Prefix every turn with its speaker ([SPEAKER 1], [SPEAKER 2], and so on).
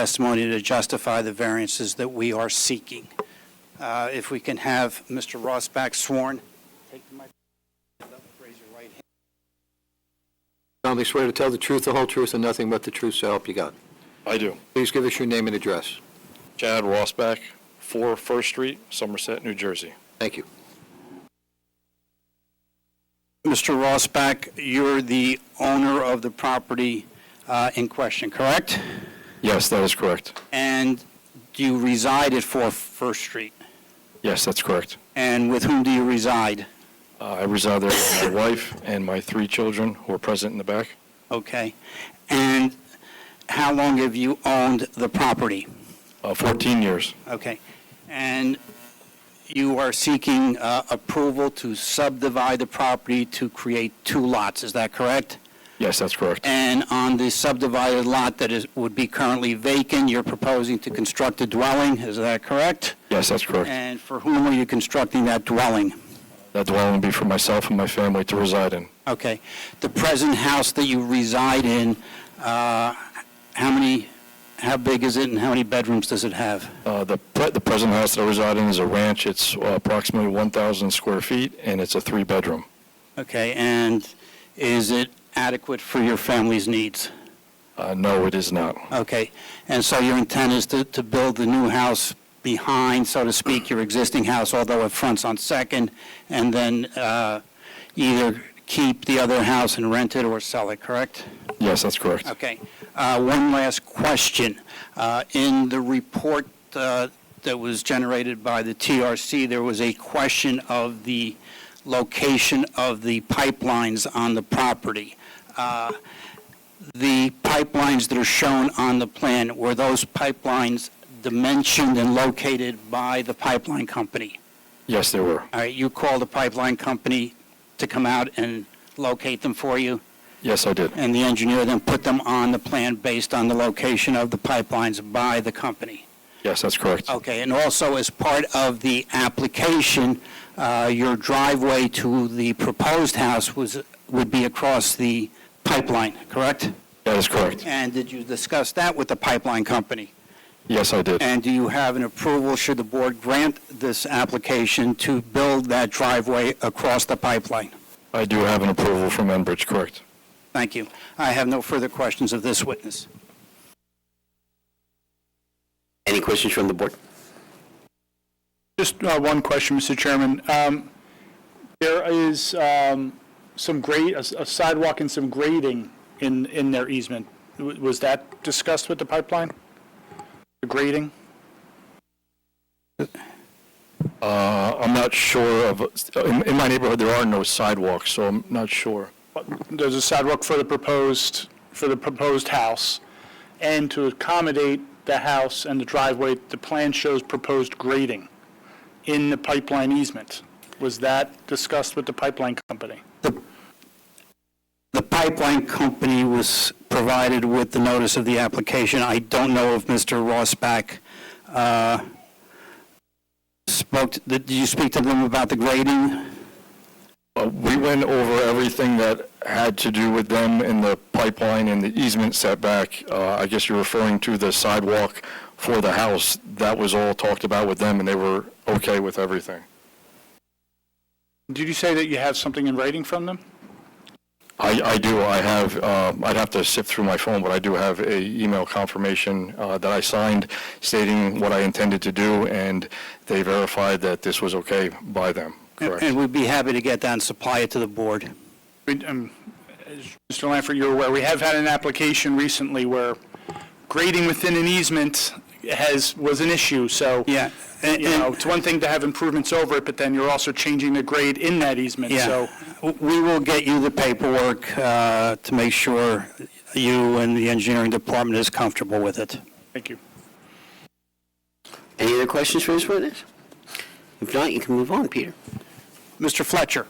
[SPEAKER 1] testimony to justify the variances that we are seeking. Uh, If we can have Mr. Ross back sworn. Take the microphone up, raise your right hand.
[SPEAKER 2] solemnly swear to tell the truth, the whole truth, and nothing but the truth, so help you God.
[SPEAKER 3] I do.
[SPEAKER 2] Please give us your name and address.
[SPEAKER 3] Chad Rossback, 4 First Street, Somerset, New Jersey.
[SPEAKER 2] Thank you.
[SPEAKER 1] Mr. Rossback, you're the owner of the property uh, in question, correct?
[SPEAKER 3] Yes, that is correct.
[SPEAKER 1] And you reside at 4 First Street.
[SPEAKER 3] Yes, that's correct.
[SPEAKER 1] And with whom do you reside?
[SPEAKER 3] Uh, I reside there with my wife and my three children who are present in the back.
[SPEAKER 1] Okay. And how long have you owned the property?
[SPEAKER 3] Uh, 14 years.
[SPEAKER 1] Okay. And you are seeking uh, approval to subdivide the property to create two lots, is that correct?
[SPEAKER 3] Yes, that's correct.
[SPEAKER 1] And on the subdivided lot that is, would be currently vacant, you're proposing to construct a dwelling, is that correct?
[SPEAKER 3] Yes, that's correct.
[SPEAKER 1] And for whom are you constructing that dwelling?
[SPEAKER 3] That dwelling will be for myself and my family to reside in.
[SPEAKER 1] Okay. The present house that you reside in, uh, how many, how big is it and how many bedrooms does it have?
[SPEAKER 3] Uh, The pre- the present house that I reside in is a ranch. It's uh, approximately 1,000 square feet, and it's a three-bedroom.
[SPEAKER 1] Okay, and is it adequate for your family's needs?
[SPEAKER 3] Uh, No, it is not.
[SPEAKER 1] Okay, and so your intent is to, to build the new house behind, so to speak, your existing house, although it fronts on Second, and then uh, either keep the other house and rent it or sell it, correct?
[SPEAKER 3] Yes, that's correct.
[SPEAKER 1] Okay. Uh, One last question. Uh, In the report uh, that was generated by the TRC, there was a question of the location of the pipelines on the property. Uh, The pipelines that are shown on the plan, were those pipelines dimensioned and located by the pipeline company?
[SPEAKER 3] Yes, they were.
[SPEAKER 1] All right, you called the pipeline company to come out and locate them for you?
[SPEAKER 3] Yes, I did.
[SPEAKER 1] and the engineer then put them on the plan based on the location of the pipelines by the company.
[SPEAKER 3] Yes, that's correct.
[SPEAKER 1] Okay, and also as part of the application, uh, your driveway to the proposed house was, would be across the pipeline, correct?
[SPEAKER 3] That is correct.
[SPEAKER 1] And did you discuss that with the pipeline company?
[SPEAKER 3] Yes, I did.
[SPEAKER 1] And do you have an approval, should the board grant this application to build that driveway across the pipeline?
[SPEAKER 3] I do have an approval from Enbridge, correct.
[SPEAKER 1] Thank you. I have no further questions of this witness.
[SPEAKER 4] Any questions from the board?
[SPEAKER 5] Just uh, one question, Mr. Chairman. Um, There is um, some grade, a a sidewalk and some grading in, in their easement. W- Was that discussed with the pipeline? The grading?
[SPEAKER 3] Uh, I'm not sure of, in in my neighborhood, there are no sidewalks, so I'm not sure.
[SPEAKER 5] There's a sidewalk for the proposed, for the proposed house, and to accommodate the house and the driveway, the plan shows proposed grading in the pipeline easement. Was that discussed with the pipeline company?
[SPEAKER 1] The pipeline company was provided with the notice of the application. I don't know if Mr. Rossback uh, spoke, did you speak to them about the grading?
[SPEAKER 3] Uh, We went over everything that had to do with them and the pipeline and the easement setback. Uh, I guess you're referring to the sidewalk for the house. That was all talked about with them, and they were okay with everything.
[SPEAKER 5] Did you say that you have something in writing from them?
[SPEAKER 3] I, I do, I have, uh, I'd have to sift through my phone, but I do have a email confirmation uh, that I signed stating what I intended to do, and they verified that this was okay by them, correct?
[SPEAKER 1] And we'd be happy to get that and supply it to the board.
[SPEAKER 5] We- um, as Mr. Lanford, you're aware, we have had an application recently where grading within an easement has, was an issue, so.
[SPEAKER 1] Yeah, and-
[SPEAKER 5] You know, it's one thing to have improvements over it, but then you're also changing the grade in that easement, so.
[SPEAKER 1] Yeah, we will get you the paperwork uh, to make sure you and the engineering department is comfortable with it.
[SPEAKER 5] Thank you.
[SPEAKER 4] Any other questions for this witness? If not, you can move on, Peter.
[SPEAKER 1] Mr. Fletcher?